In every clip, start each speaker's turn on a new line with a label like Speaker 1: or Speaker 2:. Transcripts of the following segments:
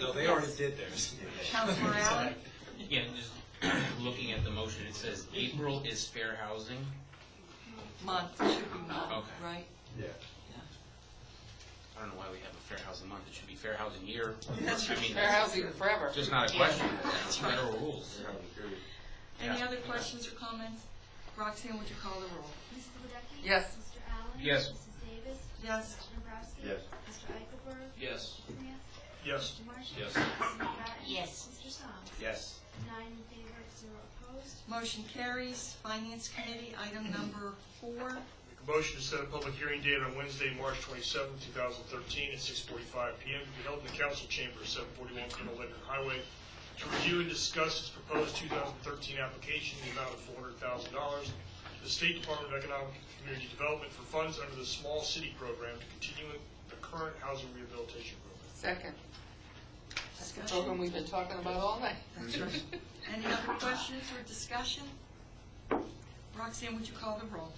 Speaker 1: No, they already did theirs.
Speaker 2: Councilor Allen?
Speaker 3: Yeah, just looking at the motion, it says April is fair housing.
Speaker 2: Month, it should be month,
Speaker 3: Okay.
Speaker 2: right?
Speaker 1: Yeah.
Speaker 3: I don't know why we have a fair housing month, it should be fair housing year.
Speaker 2: That's
Speaker 3: I mean,
Speaker 4: Fair housing forever.
Speaker 3: Just not a
Speaker 4: Yeah.
Speaker 3: question, it's federal rules.
Speaker 2: Any
Speaker 3: Yeah.
Speaker 2: other questions or comments? Roxanne, would you call the roll?
Speaker 5: Mrs. Wadecki?
Speaker 2: Yes.
Speaker 5: Mr. Allen?
Speaker 3: Yes.
Speaker 5: Mrs. Davis?
Speaker 2: Yes.
Speaker 5: Mr. Dombrowski?
Speaker 1: Yes.
Speaker 5: Mr. Eichelberg?
Speaker 3: Yes.
Speaker 5: Mr. Mansky?
Speaker 1: Yes.
Speaker 5: Mr. Marshall?
Speaker 3: Yes.
Speaker 5: Mrs. McGrattan?
Speaker 4: Yes.
Speaker 5: Mr. Song?
Speaker 3: Yes.
Speaker 5: Nine in favor, zero opposed.
Speaker 2: Motion carries. Finance Committee, item number four.
Speaker 6: Make a motion to set a public hearing date on Wednesday, March 27, 2013, at 6:45 PM, to be held in the council chamber, 741 Colonel Leonard Highway, to review and discuss its proposed 2013 application in the amount of $400,000 to the State Department of Economic and Community Development for funds under the Small City Program to continue the current housing rehabilitation program.
Speaker 4: Second. That's the
Speaker 2: Discussion.
Speaker 4: program we've been talking about all night.
Speaker 2: Any other questions or discussion? Roxanne, would you call the roll?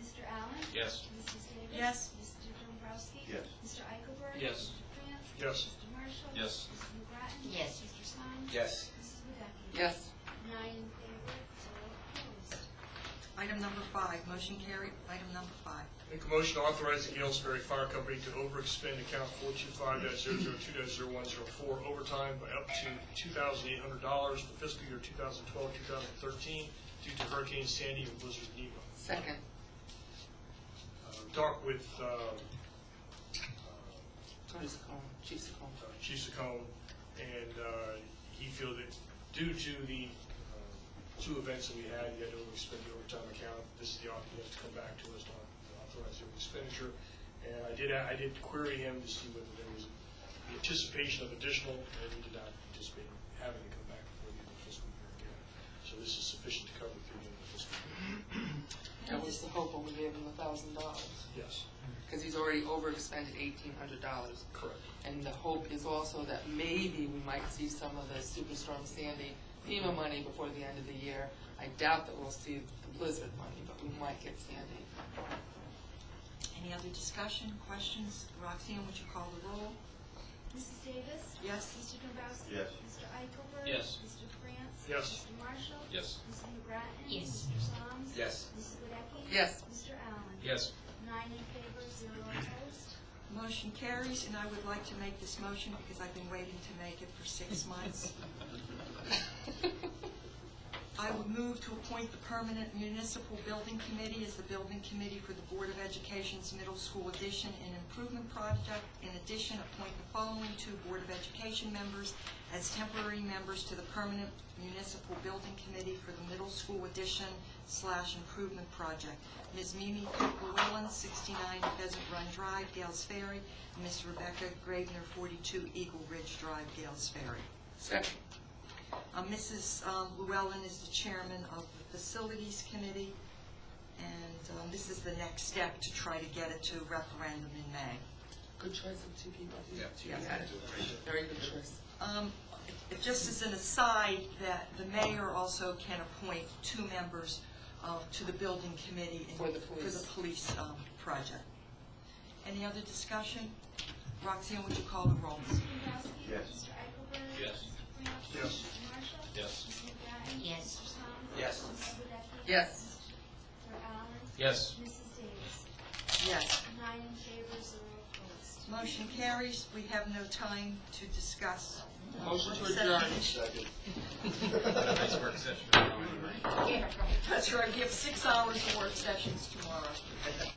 Speaker 5: Mr. Allen?
Speaker 3: Yes.
Speaker 5: Mrs. Davis?
Speaker 2: Yes.
Speaker 5: Mr. Dombrowski?
Speaker 1: Yes.
Speaker 5: Mr. Eichelberg?
Speaker 3: Yes.
Speaker 5: Mr. Mansky?
Speaker 6: Yes.
Speaker 5: Mr. Marshall?
Speaker 3: Yes.
Speaker 5: Mrs. McGrattan?
Speaker 4: Yes.
Speaker 5: Mr. Song?
Speaker 1: Yes.
Speaker 5: Mrs. Wadecki?
Speaker 4: Yes.
Speaker 5: Nine in favor, zero opposed.
Speaker 2: Item number five, motion carried. Item number five.
Speaker 6: Make a motion to authorize the Gales Ferry Fire Company to overexpend account 425-002-0104 overtime by up to $2,800 for fiscal year 2012-2013 due to Hurricane Sandy and Blizzard Nemo.
Speaker 4: Second.
Speaker 6: Uh, Talk with uh, uh,
Speaker 4: Tony Secone, Chief Secone.
Speaker 6: uh, Chief Saccone, and uh, he feel that due to the uh, two events that we had, he had to overspend the overtime account. This is the, op- he has to come back to us to authorize the expenditure. And I did, I did query him to see whether there was the anticipation of additional, and he did not anticipate having to come back before the end of the fiscal year again. So this is sufficient to cover through the end of the fiscal year.
Speaker 4: That was the hope when we gave him a thousand dollars,
Speaker 6: Yes,
Speaker 4: because he's already overexpended eighteen hundred dollars.
Speaker 6: correct.
Speaker 4: And the hope is also that maybe we might see some of the Superstorm Sandy FEMA money before the end of the year. I doubt that we'll see the Blizzard money, but we might get Sandy.
Speaker 2: Any other discussion, questions? Roxanne, would you call the roll?
Speaker 5: Mrs. Davis?
Speaker 2: Yes.
Speaker 5: Mr. Dombrowski?
Speaker 1: Yes.
Speaker 5: Mr. Eichelberg?
Speaker 3: Yes.
Speaker 5: Mr. France?
Speaker 6: Yes.
Speaker 5: Mr. Marshall?
Speaker 3: Yes.
Speaker 5: Mrs. McGrattan?
Speaker 4: Yes.
Speaker 5: Mr. Soms?
Speaker 1: Yes.
Speaker 5: Mrs. Wadecki?
Speaker 4: Yes.
Speaker 5: Mr. Allen?
Speaker 3: Yes.
Speaker 5: Nine in favor, zero opposed.
Speaker 2: Motion carries, and I would like to make this motion because I've been waiting to make it for six months. I would move to appoint the permanent municipal building committee as the building committee for the Board of Education's middle school addition and improvement project. In addition, appoint the following two Board of Education members as temporary members to the permanent municipal building committee for the middle school addition slash improvement project. Ms. Mimi Llewellyn, 69 Pheasant Run Drive, Gales Ferry, and Ms. Rebecca Gravener, 42 Eagle Ridge Drive, Gales Ferry.
Speaker 4: Second.
Speaker 2: Uh, Mrs. um, Llewellyn is the chairman of the Facilities Committee, and um, this is the next step to try to get it to referendum in May.
Speaker 4: Good choice of two people.
Speaker 1: Yeah.
Speaker 4: Yeah. Very good choice.
Speaker 2: Um, it- Just as an aside, that the mayor also can appoint two members uh, to the building committee. and-
Speaker 4: For the police.
Speaker 2: For the police um, project. Any other discussion? Roxanne, would you call the roll?
Speaker 5: Mr. Dombrowski?
Speaker 1: Yes.
Speaker 5: Mr. Eichelberg?
Speaker 3: Yes.
Speaker 5: Mr. France?
Speaker 6: Yes.
Speaker 5: Mr. Marshall?
Speaker 3: Yes.
Speaker 5: Mrs. McGrattan?
Speaker 4: Yes.
Speaker 5: Mr. Soms?
Speaker 1: Yes.
Speaker 5: Mrs. Wadecki?
Speaker 4: Yes.
Speaker 5: Mr. Allen?
Speaker 3: Yes.
Speaker 5: Mrs. Davis?
Speaker 2: Yes.
Speaker 5: Nine in favor, zero opposed.
Speaker 2: Motion carries. We have no time to discuss. uh,
Speaker 4: Motion to
Speaker 2: set
Speaker 4: adjourn.
Speaker 2: the-
Speaker 1: Second.
Speaker 3: Nice work session.
Speaker 2: That's right, we have six hours of work sessions tomorrow.